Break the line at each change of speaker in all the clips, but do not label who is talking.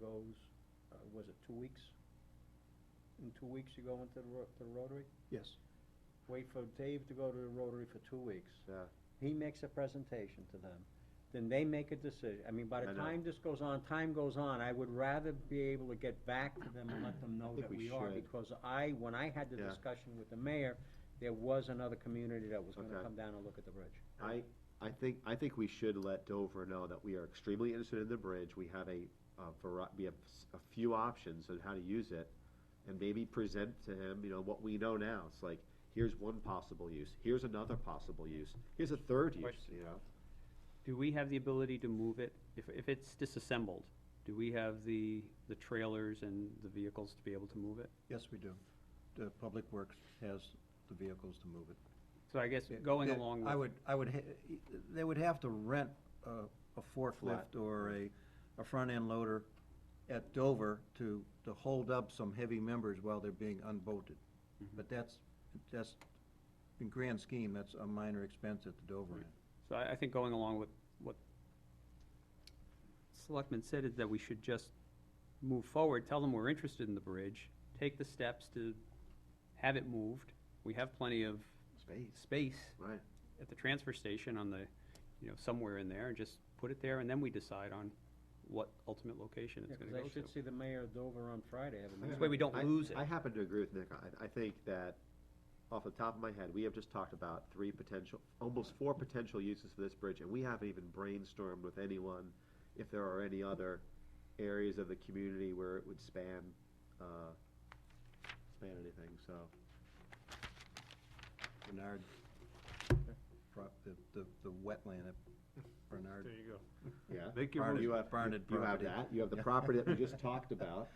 goes, uh, was it two weeks? In two weeks you go into the Ro- the Rotary?
Yes.
Wait for Dave to go to the Rotary for two weeks.
Yeah.
He makes a presentation to them, then they make a decision. I mean, by the
I know.
time this goes on, time goes on, I would rather be able to get back to them and let them know
think
that
we
we are.
should.
Because I, when I had the
Yeah.
discussion with the mayor, there was another community that was gonna
Okay.
come down and look at the bridge.
I, I think, I think we should let Dover know that we are extremely interested in the bridge, we have a, a vari- we have s- a few options on how to use it, and maybe present to him, you know, what we know now, it's like, here's one possible use, here's another possible use, here's a third use,
Question.
you know?
Do we have the ability to move it, if, if it's disassembled, do we have the, the trailers and the vehicles to be able to move it?
Yes, we do. The Public Works has the vehicles to move it.
So I guess going
They-
along
I
with,
would, I would, ha- they would have to rent a a forklift or a, a front-end loader at Dover to, to hold up some heavy members while they're being unbolted.
Mm-hmm.
But that's, that's, in grand scheme, that's a minor expense at the Dover end.
so I, I think going along with what Selectman said is that we should just move forward, tell them we're interested in the bridge, take the steps to have it moved. We have plenty of
Space.
space
Right,
at the transfer station on the, you know, somewhere in there, and just put it there, and then we decide on what ultimate location
Yeah,
it's
'cause
gonna go to.
I should see the mayor of Dover on Friday, have a
This
meeting.
way we don't
I-
lose it.
I happen to agree with Nick, I, I think that, off the top of my head, we have just talked about three potential, almost four potential uses for this bridge, and we haven't even brainstormed with anyone if there are any other areas of the community where it would span, uh, span anything, so.
Bernard, pro- the, the, the wetland at Bernard.
There you go.
Yeah.
Make your
Barnard-
motion.
You have,
Barnard
you have
property.
that, you have the property that we just talked about,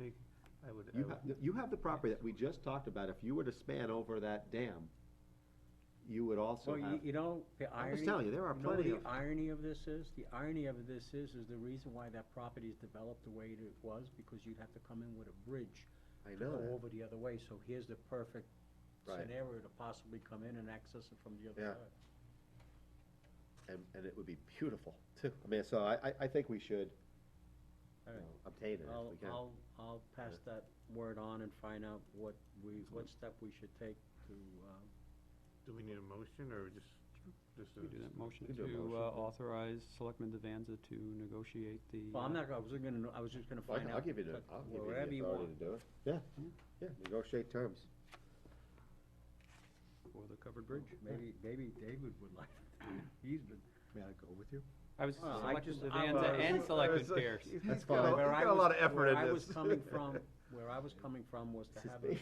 Make- I would, I
you
would,
have, you have the property that we just talked about, if you were to span over that dam, you would also
Well, you,
have,
you know, the
I'm
irony.
just telling you, there are
know what
plenty of.
the irony of this is? The irony of this is, is the reason why that property is developed the way it was, because you'd have to come in with a bridge
I
go
know that.
over the other way, so here's the perfect
Right.
scenario to possibly come in and access it from the
Yeah.
other side.
and, and it would be beautiful too. I mean, so I, I, I think we should
All
you
right.
know, obtain it if
I'll,
we can.
I'll, I'll pass that word on and find out what we, what step we should take to, um,
do we need a motion or just, just
We do
a
that motion
We do
to
a motion,
uh,
yeah.
authorize Selectman Devanza to negotiate the.
well, I'm
uh,
not, I was gonna, I was just gonna
Well,
find
I can-
out.
I'll give you the,
but
I'll give you
wherever
the
want.
authority to do it. Yeah, yeah, negotiate terms.
For the covered bridge.
Maybe, maybe David would like to, do it. he's been.
May I go with you?
I uh, was
Well, I
Selectman
just- I
Devanza
was-
and Selectman
It's like-
Pierce.
he's
That's
got
fine.
a-
Where
He's
I
got a
was-
lot of effort in this.
Where I was coming from, where I was coming from was to have a,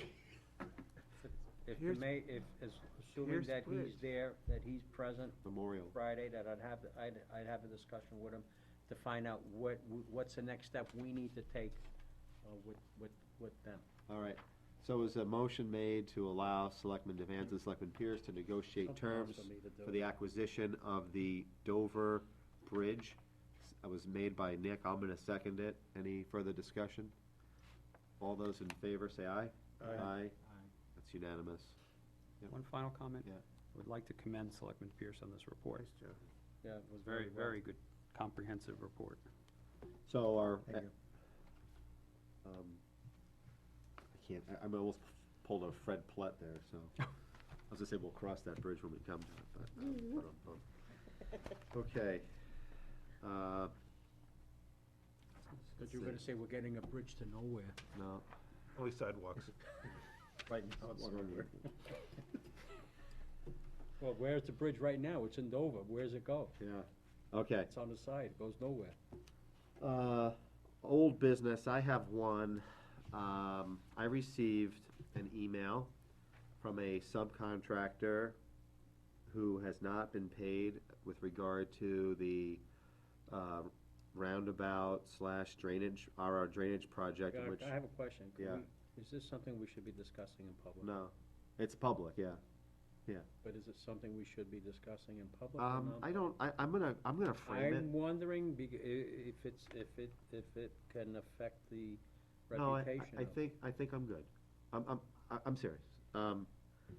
if the
Here's-
may, if, as- assuming
here's
that he's
bridge.
there, that he's present,
Memorial.
Friday that I'd have, I'd, I'd have a discussion with him to find out what, what's the next step we need to take, uh, with, with, with them.
All right. So is a motion made to allow Selectman Devanza and Selectman Pierce to negotiate
Something else
terms
for me to do.
for the acquisition of the Dover Bridge? It was made by Nick. I'm gonna second it. Any further discussion? All those in favor, say aye.
Aye.
That's unanimous. Yep.
One final comment.
Yeah.
I Would like to commend Selectman Pierce on this report.
Nice job.
Yeah, it was
Very,
well.
very good comprehensive report.
So our,
Thank you.
um, I can't, I, I'm almost pulled a Fred Plett there, so. I was gonna say, we'll cross that bridge when we come to it, but, uh, but, um, um, okay. Uh,
But you were gonna say we're getting a bridge to nowhere.
no.
Only sidewalks.
Right.
it's wrong here.
Well, where's the bridge right now? It's in Dover. Where's it go?
Yeah, okay.
It's on the side. It goes nowhere.
Uh, old business, I have one. Um, I received an email from a subcontractor who has not been paid with regard to the, uh, roundabout slash drainage, our drainage project, in which,
I have a question. Can
Yeah.
we- Is this something we should be discussing in public?
no, it's public, yeah.
But is it something we should be discussing in public? or
Um,
not?
I don't, I, I'm gonna, I'm gonna frame it.
I'm wondering bec- i- if it's, if it, if it can affect the
No, I- I-
reputation
I
of-
think, I think I'm good. I'm, I'm, I- I'm serious. Um,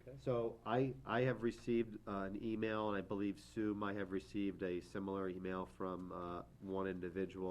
Okay.
So I, I have received uh, an email, and I believe Sue might have received a similar email from uh, one individual